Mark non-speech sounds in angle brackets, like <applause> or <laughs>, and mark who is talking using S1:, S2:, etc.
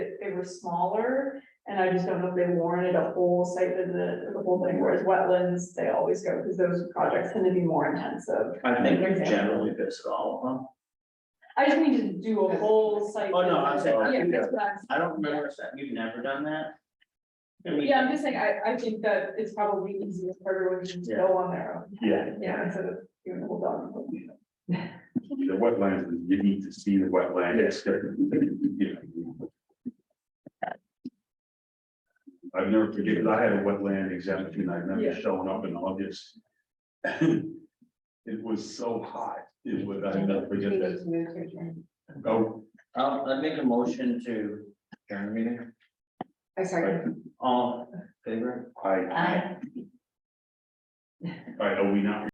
S1: were smaller. And I just don't know if they warranted a whole site visit, the whole thing, whereas wetlands, they always go, because those projects tend to be more intensive.
S2: I think
S1: Like, for
S2: we've
S1: example.
S2: generally visited all of them.
S1: I just need to do a whole site.
S2: Oh, no, I'm
S1: visit.
S2: saying-
S1: Yeah, that's what I'm
S2: I don't remember if that, you've never done that? I mean,
S1: Yeah, I'm just saying, I, I think that it's probably easier for everyone to just go on their own.
S3: Yeah.
S1: Yeah, instead of doing a whole dog.
S3: The wetlands, you need to see the wetland. <laughs> Yes. I've never forgiven, I had a wetland exemption, I
S1: Yeah.
S3: remember showing up in August. <laughs> It was so hot, it would, I never forget that. Oh,
S2: I'll, I'd make a motion to adjourn the meeting,
S4: I sorry.
S2: all in favor?
S3: I, I, are we not